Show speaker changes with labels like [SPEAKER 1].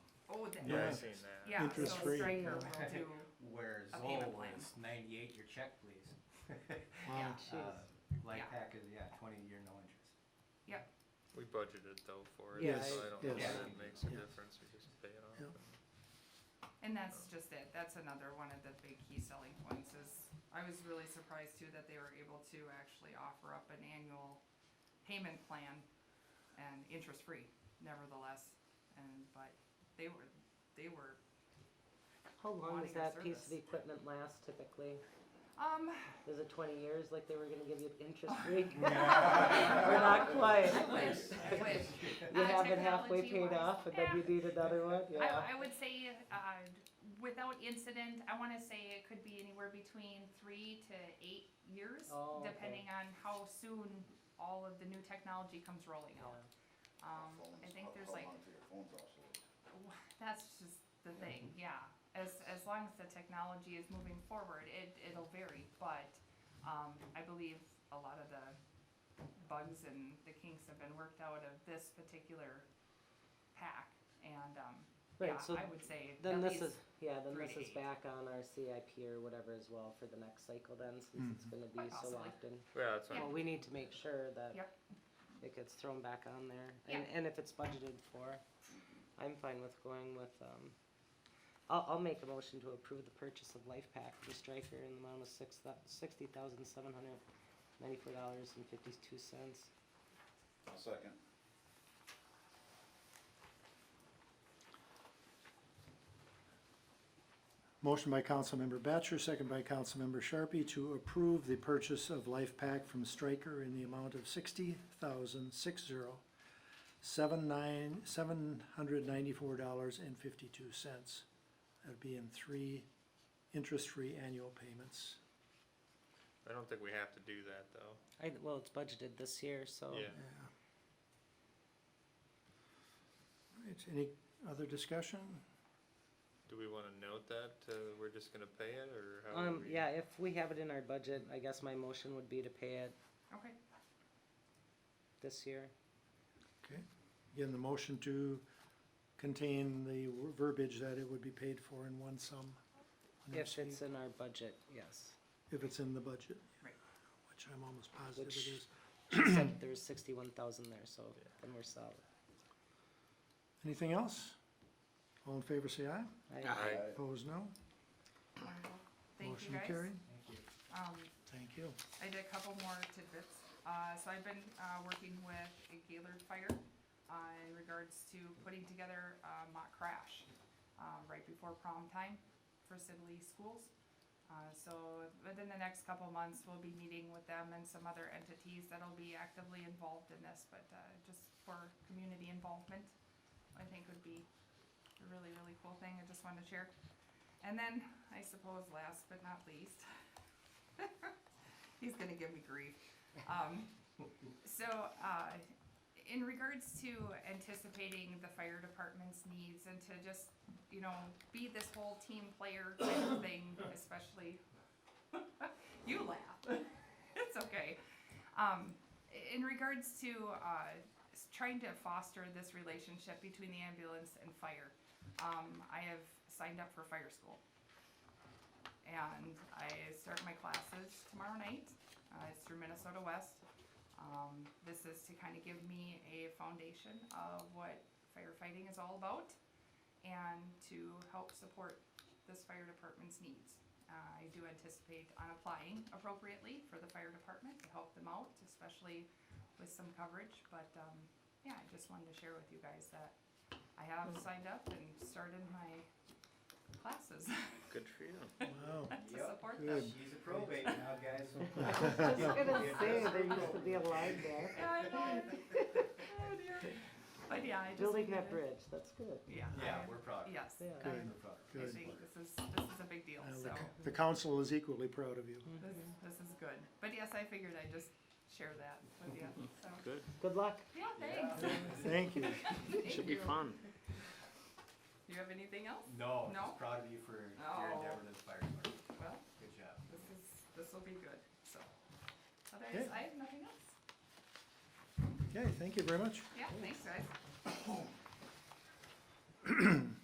[SPEAKER 1] owe them.
[SPEAKER 2] Yeah,
[SPEAKER 3] Yeah.
[SPEAKER 2] I've seen that.
[SPEAKER 1] Oh, Yeah, so
[SPEAKER 3] Interest free.
[SPEAKER 1] Stryker will do,
[SPEAKER 4] Where
[SPEAKER 1] A
[SPEAKER 4] Zoll
[SPEAKER 1] payment plan.
[SPEAKER 4] was ninety-eight, your check please.
[SPEAKER 3] Wow.
[SPEAKER 4] Uh,
[SPEAKER 1] Yeah.
[SPEAKER 4] Light pack is, yeah, twenty-year, no interest.
[SPEAKER 2] We budgeted though for it,
[SPEAKER 3] Yes,
[SPEAKER 2] so I don't know
[SPEAKER 3] yes.
[SPEAKER 2] if that makes a
[SPEAKER 3] Yeah.
[SPEAKER 2] difference, we just pay it off.
[SPEAKER 3] Yeah.
[SPEAKER 1] and that's just it, that's another one of the big key selling points is, I was really surprised too that they were able to actually offer up an annual payment plan and interest-free nevertheless, and, but they were, they were,
[SPEAKER 5] How long
[SPEAKER 1] wanting
[SPEAKER 5] does
[SPEAKER 1] a
[SPEAKER 5] that piece of
[SPEAKER 1] service.
[SPEAKER 5] equipment last typically?
[SPEAKER 1] um,
[SPEAKER 5] Is it twenty years, like they were gonna give you interest free? We're not quite.
[SPEAKER 1] I wish, I wish.
[SPEAKER 5] You
[SPEAKER 1] Uh,
[SPEAKER 5] have it halfway
[SPEAKER 1] technology-wise,
[SPEAKER 5] paid off and then
[SPEAKER 1] yeah.
[SPEAKER 5] you need another one, yeah.
[SPEAKER 1] I, I would say, uh, without incident, I wanna say it could be anywhere between three to eight years,
[SPEAKER 5] Oh, okay.
[SPEAKER 1] depending on how soon all of the new technology comes rolling out. Um, I think there's like, that's just the thing, yeah, as, as long as the technology is moving forward, it, it'll vary, but, um, I believe a lot of the bugs and the kinks have been worked out of this particular pack, and, um, yeah,
[SPEAKER 5] Right, so
[SPEAKER 1] I would say
[SPEAKER 5] then
[SPEAKER 1] at
[SPEAKER 5] this
[SPEAKER 1] least,
[SPEAKER 5] is, yeah, then
[SPEAKER 1] three
[SPEAKER 5] this
[SPEAKER 1] to
[SPEAKER 5] is
[SPEAKER 1] eight.
[SPEAKER 5] back on our CIP or whatever as well for the next cycle then, since it's gonna be
[SPEAKER 1] Quite
[SPEAKER 5] so
[SPEAKER 1] possibly.
[SPEAKER 5] often.
[SPEAKER 2] Yeah, that's fine.
[SPEAKER 5] Well, we need to make sure that
[SPEAKER 1] Yep.
[SPEAKER 5] it gets thrown back on there, and, and if it's budgeted for, I'm fine with going with, um, I'll, I'll make a motion to approve the purchase of Life Pack for Stryker in the amount of six thou- sixty thousand seven hundred ninety-four dollars and fifty-two cents.
[SPEAKER 6] Second.
[SPEAKER 3] Motion by Councilmember Batchor, second by Councilmember Sharpie to approve the purchase of Life Pack from Stryker in the amount of sixty thousand six zero seven nine, seven hundred ninety-four dollars and fifty-two cents. That'd be in three interest-free annual payments.
[SPEAKER 2] I don't think we have to do that though.
[SPEAKER 5] I, well, it's budgeted this year, so.
[SPEAKER 2] Yeah,
[SPEAKER 3] Yeah. Right, any other discussion?
[SPEAKER 2] do we wanna note that, uh, we're just gonna pay it, or how do
[SPEAKER 5] Um,
[SPEAKER 2] we?
[SPEAKER 5] yeah, if we have it in our budget, I guess my motion would be to pay it
[SPEAKER 1] okay,
[SPEAKER 5] this year.
[SPEAKER 3] Okay, again, the motion to contain the verbiage that it would be paid for in one sum. on each
[SPEAKER 5] If it's
[SPEAKER 3] fee,
[SPEAKER 5] in our budget, yes.
[SPEAKER 3] If it's in the budget.
[SPEAKER 1] Right.
[SPEAKER 3] Which I'm almost positive it
[SPEAKER 5] Which-
[SPEAKER 3] is.
[SPEAKER 5] Except there was sixty-one thousand there, so then we're solid.
[SPEAKER 3] Anything else? All in favor, say aye.
[SPEAKER 5] I-
[SPEAKER 2] Aye.
[SPEAKER 3] Opposed, no.
[SPEAKER 1] wonderful, thank you
[SPEAKER 3] Motion
[SPEAKER 1] guys.
[SPEAKER 3] carried.
[SPEAKER 4] Thank you.
[SPEAKER 1] Um,
[SPEAKER 3] Thank you.
[SPEAKER 1] I did a couple more tidbits. Uh, so I've been, uh, working with a Gaylord Fire, uh, in regards to putting together a mock crash, um, right before prom time for Sibley schools. Uh, so within the next couple months, we'll be meeting with them and some other entities that'll be actively involved in this, but, uh, just for community involvement, I think would be a really, really cool thing. I just wanted to share. And then, I suppose last but not least, he's gonna give me grief. Um, so, uh, in regards to anticipating the fire department's needs and to just, you know, be this whole team player type of thing, especially, you laugh, it's okay. Um, i- in regards to, uh, s- trying to foster this relationship between the ambulance and fire, um, I have signed up for fire school and I start my classes tomorrow night. Uh, it's through Minnesota West. Um, this is to kind of give me a foundation of what firefighting is all about and to help support this fire department's needs. Uh, I do anticipate on applying appropriately for the fire department to help them out, especially with some coverage. But um, yeah, I just wanted to share with you guys that I have signed up and started my classes
[SPEAKER 2] Good for you.
[SPEAKER 3] Wow.
[SPEAKER 1] to
[SPEAKER 4] Yep.
[SPEAKER 1] support them.
[SPEAKER 3] Good.
[SPEAKER 4] She's a probate now, guys.
[SPEAKER 5] I was gonna
[SPEAKER 4] Yeah,
[SPEAKER 5] say,
[SPEAKER 4] that's
[SPEAKER 5] there
[SPEAKER 4] our
[SPEAKER 5] used to be a line there.
[SPEAKER 1] Yeah, I know. Oh, dear. But yeah, I just.
[SPEAKER 5] Building
[SPEAKER 1] needed-
[SPEAKER 5] that bridge, that's good.
[SPEAKER 1] Yeah.
[SPEAKER 4] Yeah,
[SPEAKER 1] I-
[SPEAKER 4] we're proud.
[SPEAKER 1] Yes.
[SPEAKER 5] Yeah.
[SPEAKER 1] I-
[SPEAKER 3] Good.
[SPEAKER 4] We're proud.
[SPEAKER 1] I
[SPEAKER 3] Good.
[SPEAKER 1] think this is, this is a big deal,
[SPEAKER 3] Uh, the
[SPEAKER 1] so
[SPEAKER 3] c- The council is equally proud of you.
[SPEAKER 1] this, this is good. But yes, I figured I'd just share that with you, so.
[SPEAKER 2] Good.
[SPEAKER 5] Good luck.
[SPEAKER 1] Yeah, thanks.
[SPEAKER 3] Thank you.
[SPEAKER 1] Thank
[SPEAKER 2] Should be
[SPEAKER 1] you.
[SPEAKER 2] fun.
[SPEAKER 1] Do you have anything else?
[SPEAKER 4] No,
[SPEAKER 1] No?
[SPEAKER 4] just proud of you for your
[SPEAKER 1] Oh.
[SPEAKER 4] endeavor to the fire department.
[SPEAKER 1] Well,
[SPEAKER 4] Good job.
[SPEAKER 1] this is, this will be good, so. Otherwise,
[SPEAKER 3] Okay.
[SPEAKER 1] I have nothing else.
[SPEAKER 3] Okay, thank you very much.
[SPEAKER 1] Yeah, thanks, guys.